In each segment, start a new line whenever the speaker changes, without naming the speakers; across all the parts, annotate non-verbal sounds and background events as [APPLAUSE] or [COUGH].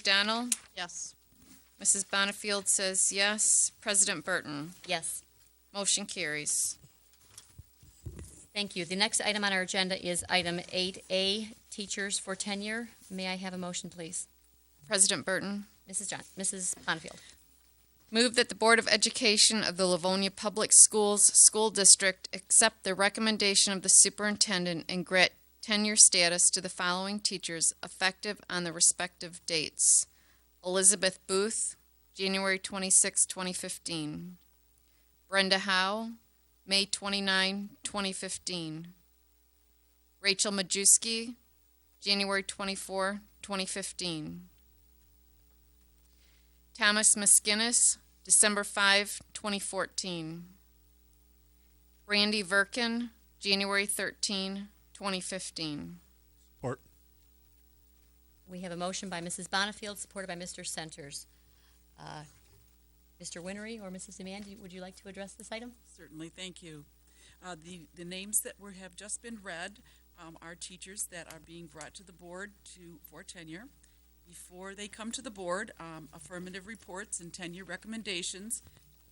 McDonald?
Yes.
Mrs. Bonifield says yes. President Burton?
Yes.
Motion carries.
Thank you. The next item on our agenda is item 8A, Teachers for Tenure. May I have a motion, please?
President Burton?
Mrs. John, Mrs. Bonnefield.
Move that the Board of Education of the Livonia Public Schools School District accept the recommendation of the superintendent and grant tenure status to the following teachers effective on the respective dates. Elizabeth Booth, January 26, 2015. Brenda Howe, May 29, 2015. Rachel Majewski, January 24, 2015. Thomas Maskinnis, December 5, 2014. Randy Verkin, January 13, 2015.
Support.
We have a motion by Mrs. Bonnefield, supported by Mr. Centers. Uh, Mr. Winery or Mrs. Demand, do you- would you like to address this item?
Certainly, thank you. Uh, The, the names that were, have just been read um, are teachers that are being brought to the board to, for tenure. Before they come to the board, um, affirmative reports and tenure recommendations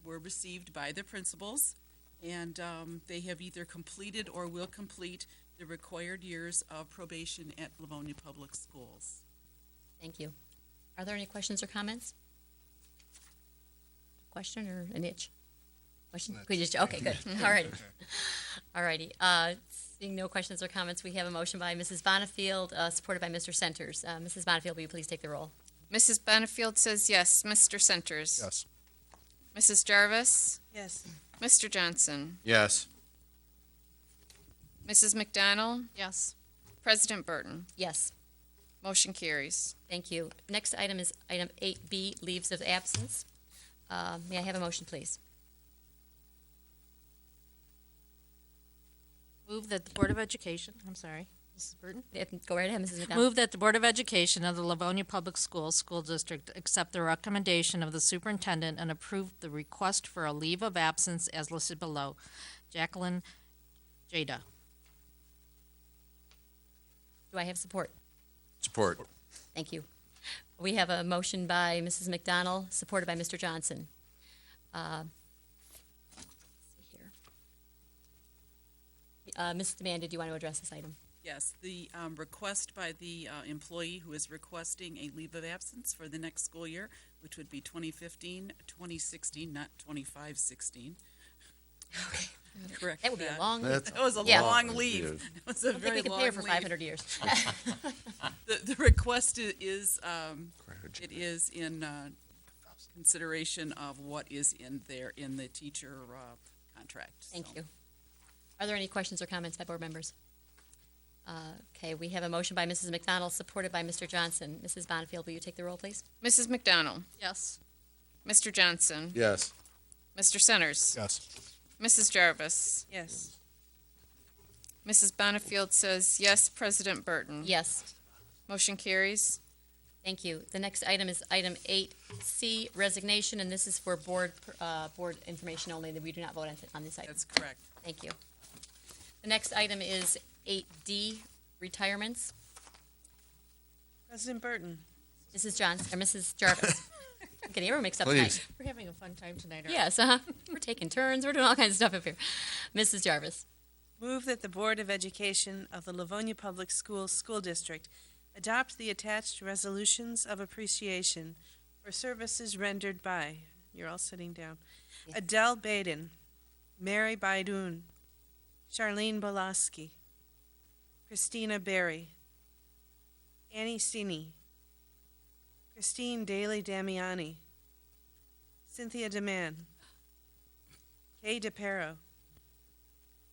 were received by the principals, and um, they have either completed or will complete the required years of probation at Livonia Public Schools.
Thank you. Are there any questions or comments? Question or an itch? Question? Could you- okay, good. All righty. All righty. Uh, seeing no questions or comments, we have a motion by Mrs. Bonnefield, uh, supported by Mr. Centers. Uh, Mrs. Bonnefield, will you please take the roll?
Mrs. Benefield says yes. Mr. Centers?
Yes.
Mrs. Jarvis?
Yes.
Mr. Johnson?
Yes.
Mrs. McDonald?
Yes.
President Burton?
Yes.
Motion carries.
Thank you. Next item is item 8B, leaves of absence. Uh, May I have a motion, please?
Move that the Board of Education, I'm sorry, Mrs. Burton.
Yeah, Go right ahead, Mrs. McDonald.
Move that the Board of Education of the Livonia Public Schools School District accept the recommendation of the superintendent and approve the request for a leave of absence as listed below. Jacqueline Jada.
Do I have support?
Support.
Thank you. We have a motion by Mrs. McDonald, supported by Mr. Johnson. Uh, let's see here. Uh, Mrs. Demand, did you want to address this item?
Yes, the um, request by the uh, employee who is requesting a leave of absence for the next school year, which would be 2015, 2016, not 25, 16. [LAUGHS] Correct
That would be a long, I
That's
[LAUGHS] That was a
Yeah.
long
long
leave. [LAUGHS]
leave.
It was a
don't think
very
we could
long
pay her for
leave.
500 years.
The, the request i- is, um, it is in uh, consideration of what is in there in the teacher uh, contract. so.
Thank you. Are there any questions or comments by board members? Uh, Okay, we have a motion by Mrs. McDonald, supported by Mr. Johnson. Mrs. Bonnefield, will you take the roll, please?
Mrs. McDonald?
Yes.
Mr. Johnson?
Yes.
Mr. Centers?
Yes.
Mrs. Jarvis?
Yes.
Mrs. Benefield says yes. President Burton?
Yes.
Motion carries.
Thank you. The next item is item eight C, resignation, and this is for board, uh, board information only, that we do not vote on, on this item.
That's correct.
Thank you. The next item is eight D, retirements.
President Burton.
Mrs. Johnson, or Mrs.
[LAUGHS]
Jarvis. I'm getting everyone mixed up
Please.
tonight.
We're having a fun time tonight. aren't
Yes, uh-huh. We're taking turns, we're doing all kinds of stuff up here. Mrs. Jarvis,
we? Move that the Board of Education of the Livonia Public Schools School District adopt the attached resolutions of appreciation for services rendered by, you're all sitting down, Adele Baden, Mary Baidoon, Charlene Bolaski, Christina Berry, Annie Sini, Christine Daly Damiani, Cynthia DeMann, Kay DePero,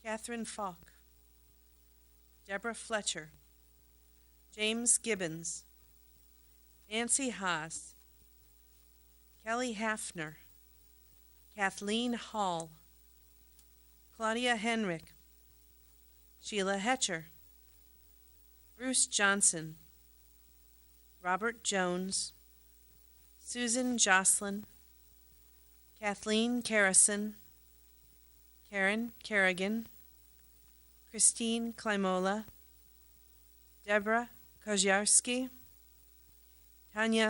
Catherine Falk, Deborah Fletcher, James Gibbons, Nancy Haas, Kelly Hafner, Kathleen Hall, Claudia Henrick, Sheila Hetcher, Bruce Johnson, Robert Jones, Susan Jocelyn, Kathleen Carrison, Karen Kerrigan, Christine Klimola, Deborah Koziarski, Tanya